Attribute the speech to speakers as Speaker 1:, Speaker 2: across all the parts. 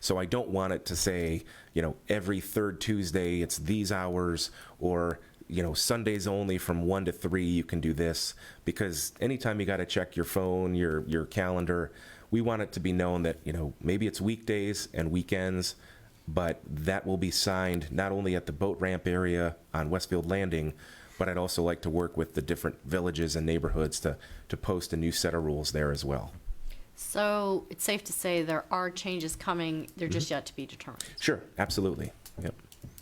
Speaker 1: So I don't want it to say, you know, every third Tuesday it's these hours or you know, Sundays only from 1 to 3 you can do this because anytime you got to check your phone, your your calendar, we want it to be known that, you know, maybe it's weekdays and weekends, but that will be signed not only at the boat ramp area on Westfield Landing, but I'd also like to work with the different villages and neighborhoods to to post a new set of rules there as well.
Speaker 2: So it's safe to say there are changes coming, they're just yet to be determined.
Speaker 1: Sure, absolutely. Yep.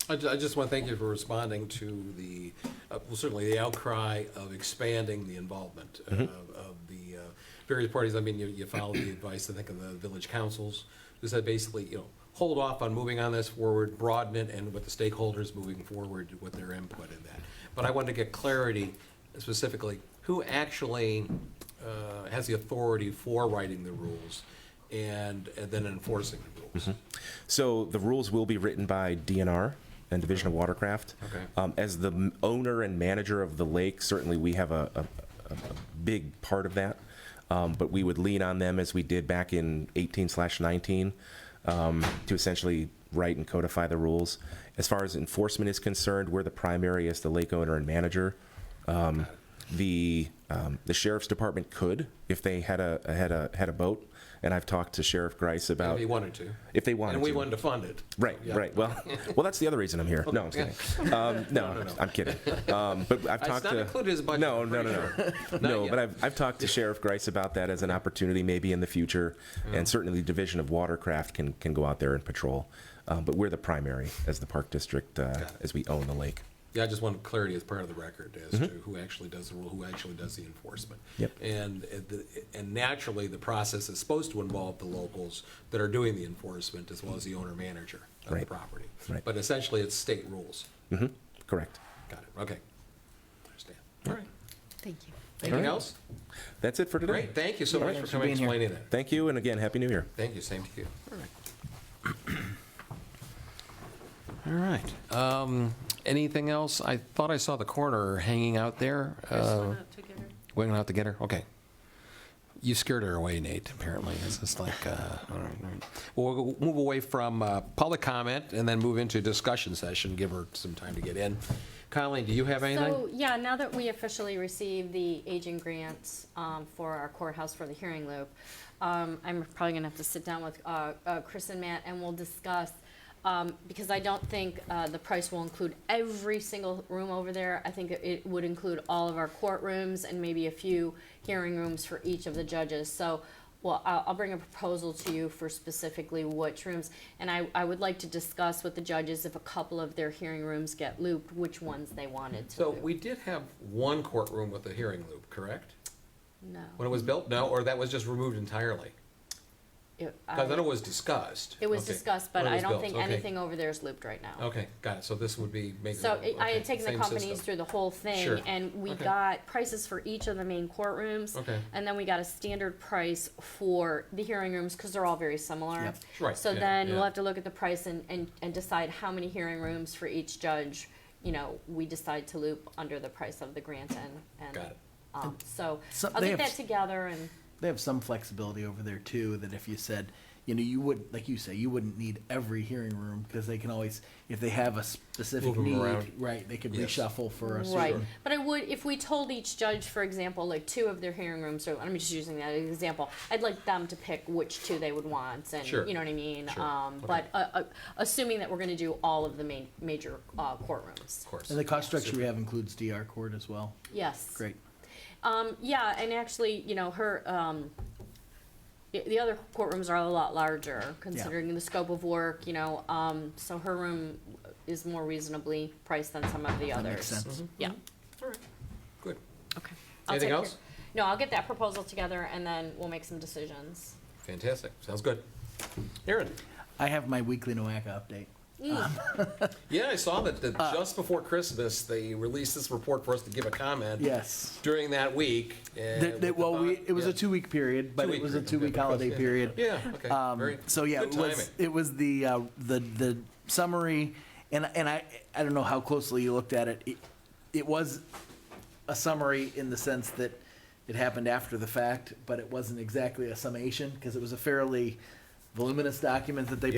Speaker 3: I ju- I just want to thank you for responding to the, uh, well, certainly the outcry of expanding the involvement uh, of the uh, various parties. I mean, you- you followed the advice, I think, of the village councils, who said basically, you know, hold off on moving on this forward, broaden it, and with the stakeholders moving forward with their input in that. But I wanted to get clarity specifically, who actually uh, has the authority for writing the rules and and then enforcing the rules?
Speaker 1: So the rules will be written by DNR and Division of Watercraft.
Speaker 3: Okay.
Speaker 1: Um, as the m- owner and manager of the lake, certainly we have a, a, a a big part of that. Um, but we would lean on them as we did back in 18 slash 19 um, to essentially write and codify the rules. As far as enforcement is concerned, we're the primary as the lake owner and manager. Um, the um, the sheriff's department could if they had a had a had a boat, and I've talked to Sheriff Grice about
Speaker 3: If they wanted to.
Speaker 1: if they wanted
Speaker 3: And we
Speaker 1: to.
Speaker 3: wanted to fund it.
Speaker 1: Right,
Speaker 3: Yeah.
Speaker 1: right. Well, well, that's the other reason I'm here. No, I'm
Speaker 3: Okay.
Speaker 1: kidding. Um, no,
Speaker 3: no, no.
Speaker 1: I'm kidding. Um, but I've
Speaker 3: It's
Speaker 1: talked
Speaker 3: not
Speaker 1: to
Speaker 3: included as budget,
Speaker 1: No,
Speaker 3: I'm
Speaker 1: no, no,
Speaker 3: pretty
Speaker 1: no,
Speaker 3: sure. Not
Speaker 1: no.
Speaker 3: yet.
Speaker 1: But I've I've talked to Sheriff Grice about that as an opportunity maybe in the future, and certainly the Division of Watercraft can can go out there and patrol. Um, but we're the primary as the park district uh,
Speaker 3: it.
Speaker 1: as we own the lake.
Speaker 3: Yeah, I just wanted clarity as part of the record as to who actually does the rule, who actually does the enforcement.
Speaker 1: Mm-hmm. Yep.
Speaker 3: And, it- the- and naturally, the process is supposed to involve the locals that are doing the enforcement as well as the owner-manager of the
Speaker 1: Right.
Speaker 3: property.
Speaker 1: Right.
Speaker 3: But essentially, it's state rules.
Speaker 1: hmm Correct.
Speaker 3: Got it, okay. Understand. All right.
Speaker 2: Thank you.
Speaker 3: Anything
Speaker 1: right.
Speaker 3: else?
Speaker 1: That's it for today.
Speaker 3: Great, thank you so much for
Speaker 4: thanks for
Speaker 3: coming and
Speaker 4: being here.
Speaker 3: explaining that.
Speaker 1: Thank you, and again, happy New Year.
Speaker 3: Thank you, same to you.
Speaker 4: All right.
Speaker 3: Um, Anything else? I thought I saw the coroner hanging out there. Uh, Waiting out to get her? Okay. You scared her away, Nate, apparently. It's just like, uh, all right, all right. Well, We'll move away from uh, public comment and then move into discussion session, give her some time to get in. Colleen, do you have
Speaker 2: So,
Speaker 3: anything?
Speaker 2: yeah, now that we officially received the aging grants um, for our courthouse for the hearing loop, um, I'm probably gonna have to sit down with uh, uh, Chris and Matt and we'll discuss, um, because I don't think uh, the price will include every single room over there. I think it- it would include all of our courtrooms and maybe a few hearing rooms for each of the judges. So Well, I'll, I'll bring a proposal to you for specifically which rooms, and I, I would like to discuss with the judges if a couple of their hearing rooms get looped, which ones they wanted to
Speaker 3: So
Speaker 2: loop.
Speaker 3: we did have one courtroom with a hearing loop, correct? When
Speaker 2: No.
Speaker 3: it was built? No, or that was just removed entirely?
Speaker 2: It,
Speaker 3: Because I know
Speaker 2: I-
Speaker 3: it was discussed.
Speaker 2: Um, it was
Speaker 3: Okay.
Speaker 2: discussed, but
Speaker 3: When it
Speaker 2: I
Speaker 3: was
Speaker 2: don't
Speaker 3: built,
Speaker 2: think
Speaker 3: okay.
Speaker 2: anything over there is looped right now.
Speaker 3: Okay, got it. So this would be making.
Speaker 2: So it- I had
Speaker 3: okay,
Speaker 2: taken the
Speaker 3: same
Speaker 2: companies
Speaker 3: system.
Speaker 2: through the whole
Speaker 3: Sure.
Speaker 2: thing, and we
Speaker 3: Okay.
Speaker 2: got prices for each of the main courtrooms.
Speaker 3: Okay.
Speaker 2: And then we got a standard price for the hearing rooms, because they're all very similar.
Speaker 4: Yep.
Speaker 3: Right,
Speaker 2: So
Speaker 3: yeah,
Speaker 2: then we'll
Speaker 3: yeah.
Speaker 2: have to look at the price and, and, and decide how many hearing rooms for each judge, you know, we decide to loop under the price of the grant and, and.
Speaker 3: Got it.
Speaker 2: Um, so,
Speaker 4: So
Speaker 2: I'll
Speaker 4: they
Speaker 2: get
Speaker 4: have
Speaker 2: that
Speaker 4: s-
Speaker 2: together and,
Speaker 4: They have some flexibility over there too, that if you said, you know, you would, like you say, you wouldn't need every hearing room because they can always, if they have a
Speaker 3: Move
Speaker 4: specific
Speaker 3: 'em
Speaker 4: need,
Speaker 3: around.
Speaker 4: right, they could
Speaker 3: Yes.
Speaker 4: reshuffle for a
Speaker 2: right,
Speaker 4: certain.
Speaker 2: but I would, if we told each judge, for example, like two of their hearing rooms, or I'm just using that as an example, I'd like them to pick which two they would want, and,
Speaker 3: Sure.
Speaker 2: you know what I mean?
Speaker 3: Sure.
Speaker 2: Um, but, uh, uh, assuming that we're gonna do all of the main, major, uh, courtrooms,
Speaker 3: Of course.
Speaker 4: And the cost structure we have includes DR court as well.
Speaker 2: yes.
Speaker 4: Great.
Speaker 2: Um, yeah, and actually, you know, her, um, the, the other courtrooms are a lot larger, considering the scope of work, you know, um, so her room is more reasonably priced than some of the
Speaker 4: That
Speaker 2: others.
Speaker 4: makes sense.
Speaker 3: Mm-hmm.
Speaker 2: Yeah,
Speaker 3: All right, good.
Speaker 2: okay. I'll
Speaker 3: Anything
Speaker 2: take care-
Speaker 3: else?
Speaker 2: No, I'll get that proposal together and then we'll make some decisions.
Speaker 3: Fantastic. Sounds good. Aaron?
Speaker 4: I have my weekly NOACA update.
Speaker 3: Yeah, I saw that,
Speaker 4: Uh,
Speaker 3: that just before Christmas, they released this report for us to give a comment.
Speaker 4: Yes.
Speaker 3: During that week. uh,
Speaker 4: That, that,
Speaker 3: with the
Speaker 4: well, we,
Speaker 3: bond-
Speaker 4: it was
Speaker 3: yeah.
Speaker 4: a two-week period, but
Speaker 3: Two-week
Speaker 4: it was a
Speaker 3: period,
Speaker 4: two-week
Speaker 3: okay.
Speaker 4: holiday
Speaker 3: Yeah.
Speaker 4: period.
Speaker 3: Yeah, okay.
Speaker 4: Um,
Speaker 3: Very-
Speaker 4: so yeah,
Speaker 3: good
Speaker 4: it was,
Speaker 3: timing.
Speaker 4: it was the, uh, the, the summary, and, and I, I don't know how closely you looked at it. It, it was a summary in the sense that it happened after the fact, but it wasn't exactly a summation, because it was a fairly voluminous document that they